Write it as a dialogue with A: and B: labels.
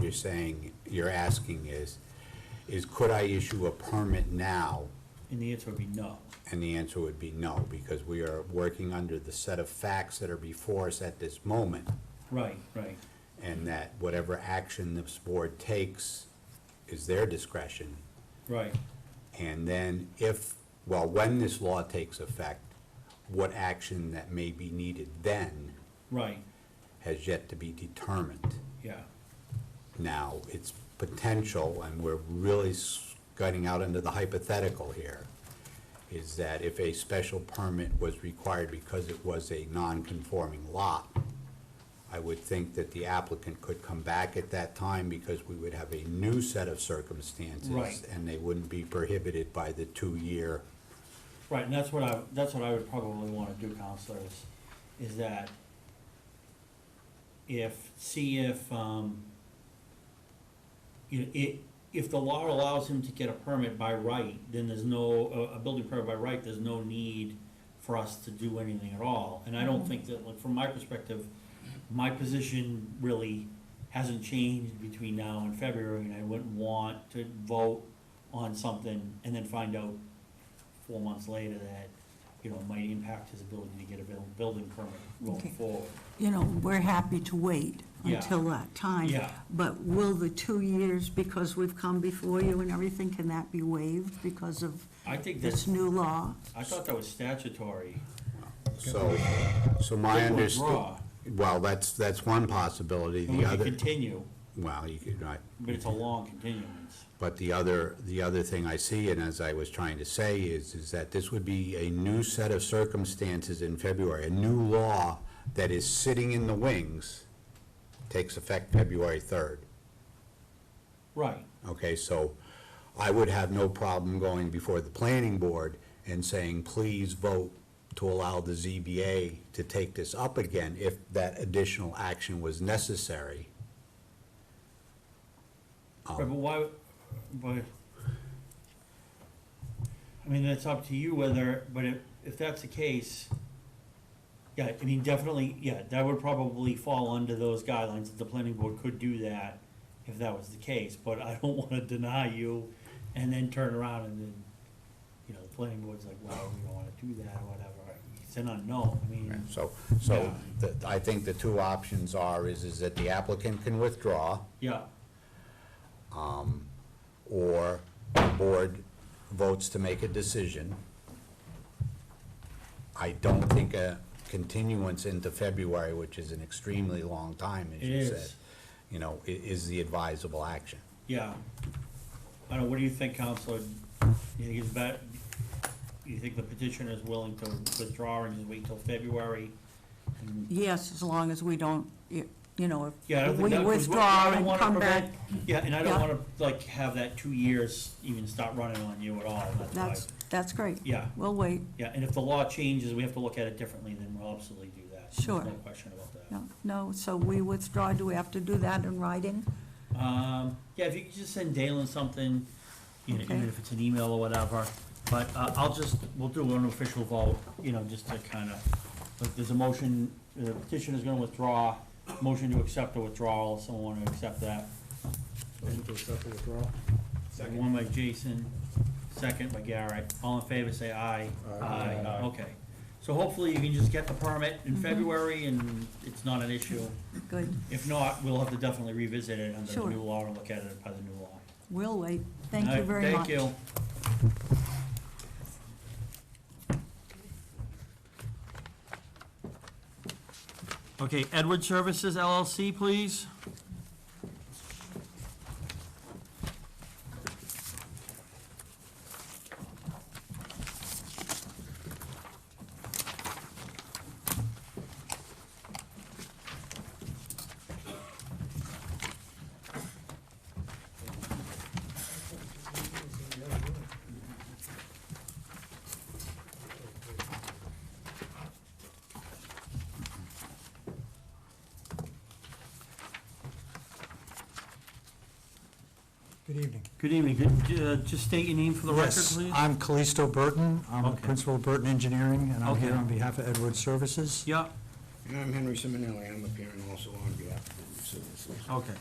A: you're saying, you're asking is, is could I issue a permit now?
B: And the answer would be no.
A: And the answer would be no, because we are working under the set of facts that are before us at this moment.
B: Right, right.
A: And that whatever action this board takes is their discretion.
B: Right,
A: And then if, well, when this law takes effect, what action that may be needed then
B: right,
A: has yet to be determined.
B: yeah,
A: Now, it's potential, and we're really s- gutting out into the hypothetical here, is that if a special permit was required because it was a non-conforming lot, I would think that the applicant could come back at that time because we would have a new set of circumstances.
B: Right.
A: And they wouldn't be prohibited by the two-year,
B: right, and that's what I, that's what I would probably wanna do, counselors, is that if, see if, um, you know, i if the law allows him to get a permit by right, then there's no, a, a building permit by right, there's no need for us to do anything at all, and I don't think that, like, from my perspective, my position really hasn't changed between now and February, and I wouldn't want to vote on something and then find out four months later that, you know, might impact his ability to get a buil- building permit
C: Okay.
B: going forward.
C: You know, we're happy to wait
B: Yeah.
C: until that time.
B: Yeah.
C: But will the two years, because we've come before you and everything, can that be waived because of
B: I think
C: this
B: that's,
C: new law?
B: I thought that was statutory.
A: so, so my
B: It would
A: understanding.
B: draw.
A: Well, that's, that's one possibility.
B: And
A: The
B: we could
A: other,
B: continue,
A: well, you could, I,
B: but it's a long continuance.
A: But the other, the other thing I see, and as I was trying to say, is, is that this would be a new set of circumstances in February, a new law that is sitting in the wings, takes effect February third.
B: Right,
A: Okay, so I would have no problem going before the planning board and saying, please vote to allow the ZBA to take this up again if that additional action was necessary. Um.
B: Right, but why, but, I mean, that's up to you whether, but if, if that's the case, yeah, I mean, definitely, yeah, that would probably fall under those guidelines, that the planning board could do that if that was the case, but I don't wanna deny you and then turn around and then, you know, the planning board's like, well, we don't wanna do that or whatever, it's an unknown, I mean,
A: So, so
B: Yeah.
A: the- I think the two options are, is, is that the applicant can withdraw,
B: yeah,
A: or the board votes to make a decision. I don't think a continuance into February, which is an extremely long time, as
B: It
A: you
B: is.
A: said, you know, i- is the advisable action.
B: Yeah. I don't, know, what do you think, Counselor? You think it's bet, you think the petitioner is willing to withdraw and just wait till February? And-
C: Yes, as long as we don't, you you know,
B: Yeah, I don't
C: if
B: think
C: we
B: that- 'cause what- I
C: withdraw
B: don't
C: and
B: wanna
C: come back,
B: prevent- Yeah, and I don't
C: Yeah.
B: wanna, like, have that two years even start running on you at all, that's why.
C: that's, that's great.
B: Yeah,
C: We'll wait,
B: yeah, and if the law changes, we have to look at it differently, then we'll absolutely do that. There's
C: Sure.
B: No question about that.
C: no, no, so we withdraw, do we have to do that in writing?
B: Um, yeah, if you could just send Dalen something, you know, even
C: Okay.
B: if it's an email or whatever, but, uh, I'll just, we'll do an official vote, you know, just to kinda, like, there's a motion, the petitioner's gonna withdraw, motion to accept the withdrawal, someone wanna accept that?
D: Motion to accept the withdrawal?
B: One by Jason, second by Garrett, all in favor, say aye.
D: Aye. Aye.
B: Okay, so hopefully you can just get the permit in February and it's not an issue,
C: Good,
B: if not, we'll have to definitely revisit it under the
C: Sure.
B: new law and look at it by the new law.
C: we'll wait, thank you
B: Alright,
C: very
B: Thank
C: much.
B: you. Okay, Edward Services LLC, please.
E: Good evening.
B: Good evening. Could, uh, Just state your name for the record,
E: Yes,
B: please.
E: I'm Callisto Burton. I'm the
B: Okay.
E: principal of Burton Engineering, and I'm here
B: Okay.
E: on behalf of Edward Services.
B: Yeah,
D: And I'm Henry Simonelli, I'm appearing also on behalf of the Civil Service.
B: okay.